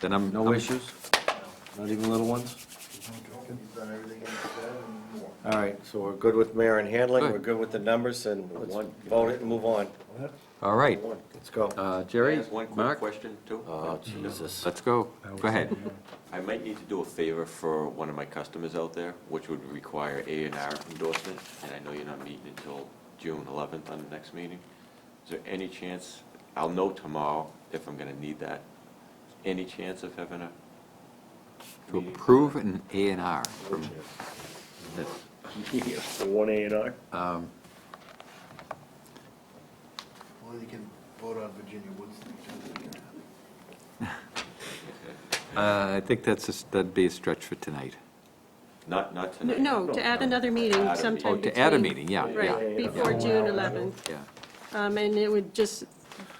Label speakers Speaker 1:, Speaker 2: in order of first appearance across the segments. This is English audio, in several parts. Speaker 1: Then I'm.
Speaker 2: No
Speaker 1: I'm-
Speaker 2: issues? Not even little ones?
Speaker 3: You've done everything you said and more.
Speaker 2: All right, so we're good with mayor and handling,
Speaker 1: Good.
Speaker 2: we're good with the numbers, and one, vote it and move on.
Speaker 1: All right,
Speaker 2: Let's go.
Speaker 1: Uh, Jerry,
Speaker 4: Just one quick
Speaker 1: Mark,
Speaker 4: question, too.
Speaker 5: Oh, Jesus.
Speaker 1: let's go. Go ahead.
Speaker 4: I might need to do a favor for one of my customers out there, which would require A and R endorsement, and I know you're not meeting until June 11th on the next meeting. Is there any chance, I'll know tomorrow if I'm going to need that, any chance of having a
Speaker 1: To approve an A and R from this.
Speaker 2: One A and R?
Speaker 1: Um,
Speaker 3: Well, you can vote on Virginia Woods thing too.
Speaker 1: uh, I think that's, a s- that'd be a stretch for tonight.
Speaker 4: Not, not
Speaker 6: No,
Speaker 4: tonight?
Speaker 6: No, to add another meeting
Speaker 4: Add a
Speaker 6: sometime
Speaker 1: Oh,
Speaker 6: between.
Speaker 1: to add a meeting, yeah, yeah,
Speaker 6: Right, before June 11th.
Speaker 1: yeah.
Speaker 6: Um, And it would just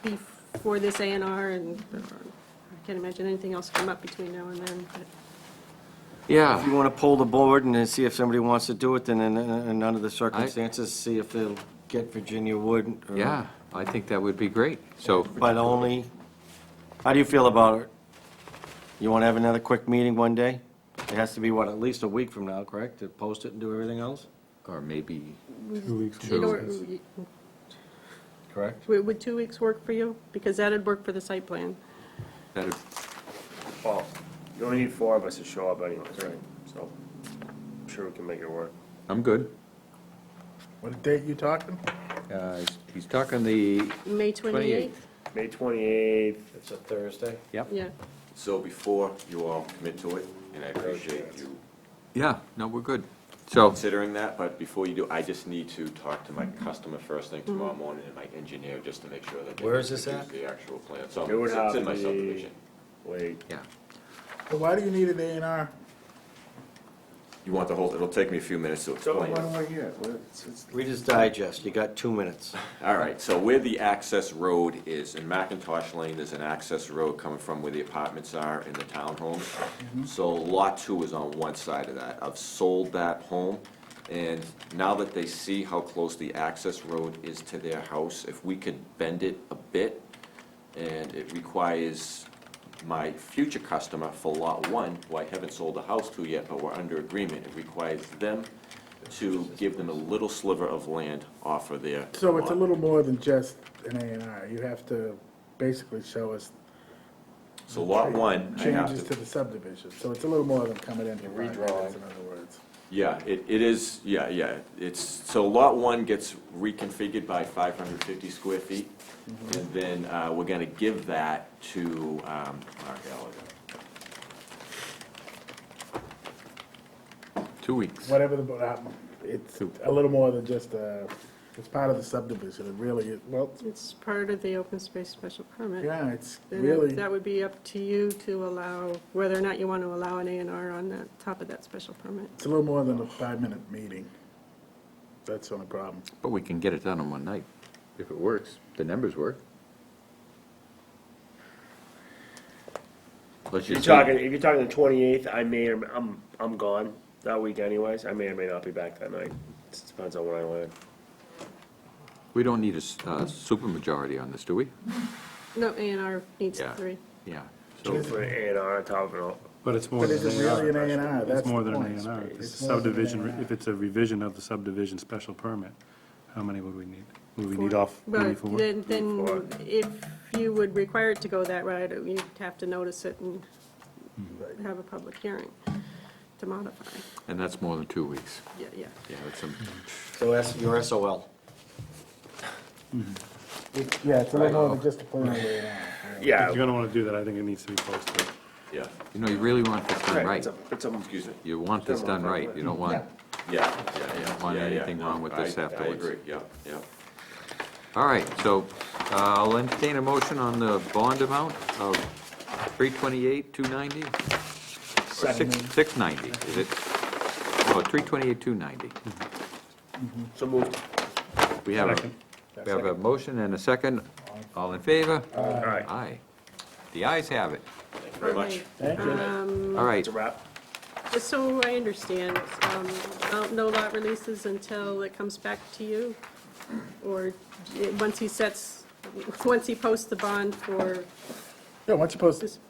Speaker 6: be for this A and R, and I can't imagine anything else come up between now and then, but.
Speaker 2: If you
Speaker 1: Yeah,
Speaker 2: want to pull the board and then see if somebody wants to do it, then in, in in under the circumstances, see if they'll get Virginia Wood. or-
Speaker 1: yeah, I think that would be great. So,
Speaker 2: But only, how do you feel about it? You want to have another quick meeting one day? It has to be, what, at least a week from now, correct, to post it and do everything else?
Speaker 1: or maybe,
Speaker 6: You know,
Speaker 2: Correct.
Speaker 6: Would would two weeks work for you? Because that'd work for the site plan.
Speaker 1: that'd,
Speaker 7: Well, you only need four of us to show up anyways, right? So, I'm sure we can make it work.
Speaker 1: I'm good.
Speaker 3: What date you talking?
Speaker 1: Uh, he's- He's talking the,
Speaker 6: May 28th?
Speaker 7: May twenty-eighth,
Speaker 2: It's a Thursday?
Speaker 1: yep,
Speaker 6: Yeah.
Speaker 4: So before you all commit to it, and I appreciate you
Speaker 1: yeah, no, we're good. So,
Speaker 4: considering that, but before you do, I just need to talk to my customer first thing tomorrow
Speaker 6: Mm-hmm.
Speaker 4: morning and my engineer, just to make sure that. they
Speaker 2: Where is this at?
Speaker 4: produce The actual plan, so
Speaker 7: It would
Speaker 4: it's in
Speaker 7: have to
Speaker 4: my
Speaker 7: be-
Speaker 4: subdivision.
Speaker 7: wait,
Speaker 1: yeah,
Speaker 3: So why do you need an A and R?
Speaker 4: You want the whole, it'll take me a few minutes to explain.
Speaker 7: I get? It's, it's
Speaker 2: Read his digest, you got two minutes.
Speaker 4: All right, so where the access road is, in Macintosh Lane, there's an access road coming from where the apartments are in the townhomes.
Speaker 3: Mm-hmm.
Speaker 4: So lot two is on one side of that. I've sold that home, and now that they see how close the access road is to their house, if we could bend it a bit, and it requires my future customer for lot one, who I haven't sold a house to yet, but we're under agreement, it requires them to give them a little sliver of land off of their
Speaker 3: So it's a
Speaker 4: lot.
Speaker 3: little more than just an A and R. You have to basically show us
Speaker 4: So lot one, I
Speaker 3: changes
Speaker 4: have
Speaker 3: to
Speaker 4: to,
Speaker 3: the subdivision. So it's a little more than coming in for five minutes, in other words.
Speaker 4: yeah, it, it is, yeah, yeah, it's, so lot one gets reconfigured by five hundred fifty square feet. And then, uh, we're gonna give that to, um, Mark Gallagher.
Speaker 1: two weeks.
Speaker 3: Whatever the, but, um, it's a little more than just a, it's part of the subdivision. It really, is- well,
Speaker 6: It's part of the open space special permit.
Speaker 3: yeah, it's
Speaker 6: Then
Speaker 3: really.
Speaker 6: That would be up to you to allow, whether or not you want to allow an A and R on the top of that special permit.
Speaker 3: It's a little more than a five-minute meeting. That's the only problem.
Speaker 1: But we can get it done in one night, if it works, the numbers work. Let's
Speaker 7: If you're
Speaker 1: just
Speaker 7: talking,
Speaker 1: see.
Speaker 7: if you're talking the twenty-eighth, I may, or I'm, I'm gone that week anyways. I may or may not be back that night. It Depends on what I land.
Speaker 1: We don't need a s- uh, supermajority on this, do we?
Speaker 6: No, A and R needs
Speaker 1: Yeah.
Speaker 6: three.
Speaker 1: Yeah, so,
Speaker 7: With A and R on top of it all.
Speaker 8: But it's more
Speaker 3: But
Speaker 8: than
Speaker 3: is
Speaker 8: an
Speaker 3: it
Speaker 8: A
Speaker 3: really an A and R? That's
Speaker 8: It's more
Speaker 3: the
Speaker 8: than an A
Speaker 3: point.
Speaker 8: and R. If it's a
Speaker 3: more than an
Speaker 8: subdivision,
Speaker 3: A&R.
Speaker 8: if it's a revision of the subdivision special permit, how many would we need? Would we need off, would we need
Speaker 6: But
Speaker 8: four?
Speaker 6: then,
Speaker 7: Four.
Speaker 6: then if you would require it to go that route, you'd have to notice it and
Speaker 8: Hmm.
Speaker 6: have a public hearing to modify.
Speaker 1: and that's more than two weeks.
Speaker 6: Yeah, yeah.
Speaker 1: Yeah, that's some,
Speaker 2: So that's your SOL.
Speaker 3: It's- Yeah, it's a little more than just a plain old A and R.
Speaker 8: If you're
Speaker 7: Yeah.
Speaker 8: gonna wanna do that, I think it needs to be posted.
Speaker 4: Yeah,
Speaker 1: you know, you really want this done
Speaker 7: Right,
Speaker 1: right.
Speaker 7: it's a, it's a,
Speaker 4: excuse me,
Speaker 1: You want this done right, you don't want,
Speaker 4: yeah, yeah, yeah.
Speaker 1: Want
Speaker 4: yeah, yeah,
Speaker 1: anything
Speaker 4: no,
Speaker 1: wrong with this
Speaker 4: I- I
Speaker 1: afterwards.
Speaker 4: agree, yeah, yeah.
Speaker 1: all right, so uh, I'll entertain a motion on the bond amount of three twenty-eight, two ninety? Six ninety, is it? Oh, three twenty-eight, two ninety.
Speaker 7: so moved.
Speaker 1: We have a,
Speaker 8: Second.
Speaker 1: we have a motion and a second. All in favor?
Speaker 7: All right,
Speaker 1: Aye. The ayes have it.
Speaker 4: Thank you very much.
Speaker 3: Thank you.
Speaker 1: All right,
Speaker 7: it's a wrap.
Speaker 6: Just um, so I understand, um, no- no lot releases until it comes back to you? Or eh, it- once he sets, once he posts the bond for
Speaker 3: Yeah, once you post,
Speaker 6: this